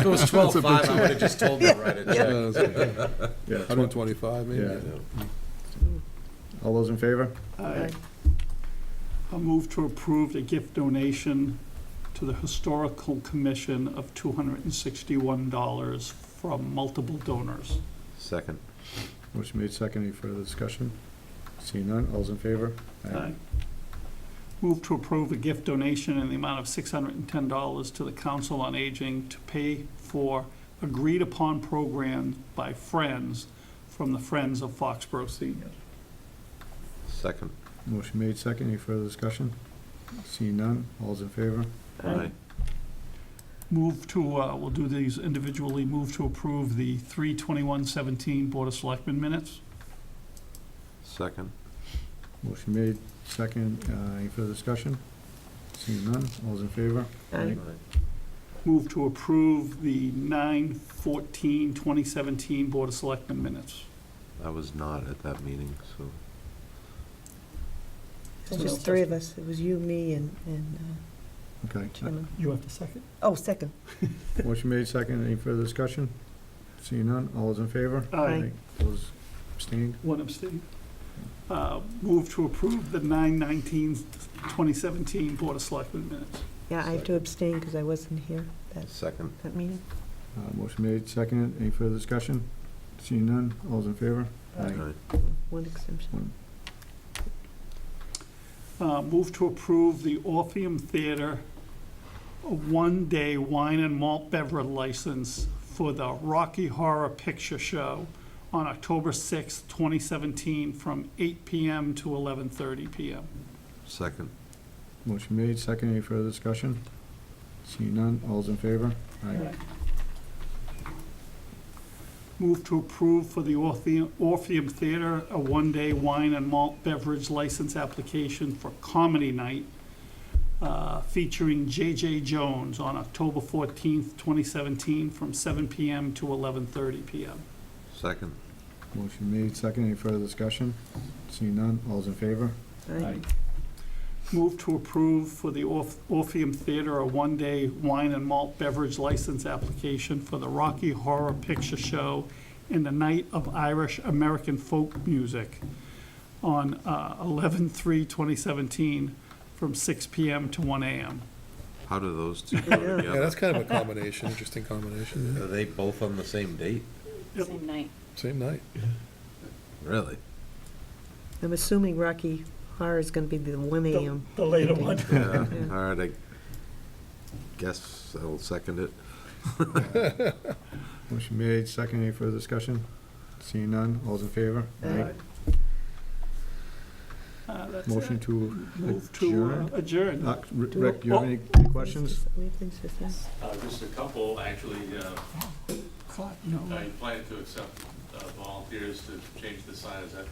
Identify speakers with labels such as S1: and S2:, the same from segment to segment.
S1: If it was
S2: That's a
S1: twelve
S2: big
S1: five, I would have just told them to write a
S2: Yeah,
S1: check.
S2: that's okay.
S3: Yeah,
S2: 125,
S3: Yeah.
S2: maybe?
S3: All those in favor?
S4: Aye. I'll move to approve a gift donation to the Historical Commission of $261 from multiple donors.
S5: Second.
S3: Motion made second. Any further discussion? Seeing none, all's in favor?
S4: Aye. Move to approve a gift donation in the amount of $610 to the Council on Aging to pay for agreed-upon programs by Friends from the Friends of Foxborough Seniors.
S5: Second.
S3: Motion made second. Any further discussion? Seeing none, all's in favor?
S5: Aye.
S4: Move to, uh, we'll do these individually, move to approve the 3/21/17 Board of Selectmen minutes.
S5: Second.
S3: Motion made second. Uh, Any further discussion? Seeing none, all's in favor?
S5: Aye.
S4: Move to approve the 9/14/2017 Board of Selectmen minutes.
S5: I was not at that meeting, so.
S6: It was just three of us. It was you, me, and, and uh,
S3: Okay.
S6: Chairman.
S4: You have to second?
S6: Oh, second.
S3: Motion made second. Any further discussion? Seeing none, all's in favor?
S4: Aye.
S3: Those abstained?
S4: One abstain. Uh, Move to approve the 9/19/2017 Board of Selectmen minutes.
S6: Yeah, I have to abstain because I wasn't here that,
S5: Second.
S6: that meeting.
S3: Uh, Motion made second. Any further discussion? Seeing none, all's in favor?
S5: Aye.
S6: One exemption.
S4: Uh, Move to approve the Orpheum Theater, a one-day wine and malt beverage license for the Rocky Horror Picture Show on October 6th, 2017, from 8 PM to 11:30 PM.
S5: Second.
S3: Motion made, second, any further discussion? Seeing none, all's in favor? Aye.
S4: Move to approve for the Orpheum Orpheum Theater, a one-day wine and malt beverage license application for Comedy Night uh, featuring J.J. Jones on October 14th, 2017, from 7 PM to 11:30 PM.
S5: Second.
S3: Motion made, second, any further discussion? Seeing none, all's in favor?
S6: Aye.
S4: Move to approve for the Orph- Orpheum Theater a one-day wine and malt beverage license application for the Rocky Horror Picture Show and the Night of Irish American Folk Music on uh, 11/3/2017 from 6 PM to 1 AM.
S5: How do those two go
S6: Yeah,
S2: Yeah,
S5: together?
S2: that's kind of a combination, interesting combination.
S5: Are they both on the same date?
S4: Yep.
S7: Same night.
S2: Same night.
S5: Really?
S6: I'm assuming Rocky Horror is going to be the 1 AM.
S4: The later one.
S5: Yeah.
S6: Yeah.
S5: All right, I guess I'll second it.
S3: Motion made, second, any further discussion? Seeing none, all's in favor?
S6: Aye.
S4: Uh, that's it.
S3: Motion to,
S4: Move to uh, oh. adjourn.
S3: uh, Rick, do you have any questions?
S6: We have things to say.
S8: Uh, Just a couple, actually, uh,
S4: Clock, no.
S8: I plan to accept uh, volunteers to change the sign, is that,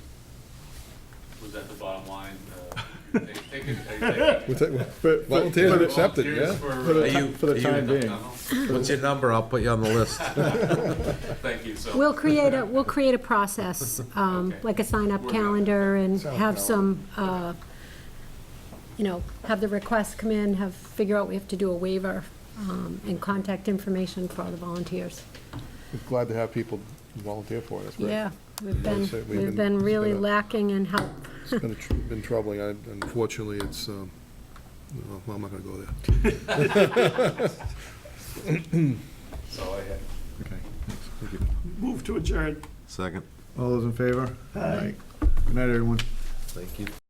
S8: was that the bottom line? Uh, you take- take it- are you
S2: We'll take-
S3: For- for-
S2: Volunteers
S3: for
S2: are
S3: the-
S2: accepted,
S8: taking volunteers
S2: yeah?
S8: for, Uh-huh.
S5: Are
S8: uh,
S5: you,
S3: For the
S5: are
S3: time
S5: you,
S3: being.
S5: what's your number? I'll put you on the list.
S8: Thank you, so.
S7: We'll create a, we'll create a process, um,
S8: Okay.
S7: like a sign-up
S8: We're gonna-
S7: calendar and
S2: Sign-up
S7: have
S2: calendar.
S7: some, uh, you know, have the requests come in, have, figure out we have to do a waiver um, and contact information for all the volunteers.
S2: We're Glad to have people volunteer for it, that's great.
S7: Yeah, we've been,
S2: That's it, we've
S7: we've
S2: been-
S7: been really
S2: been a-
S7: lacking in help.
S2: It's been tr- been troubling, I- unfortunately, it's, um, no, well, I'm not going to go there.
S8: That's all I had.
S3: Okay, thanks, thank you.
S4: Move to adjourn.
S5: Second.
S3: All those in favor? Aye. Good night, everyone.
S5: Thank you.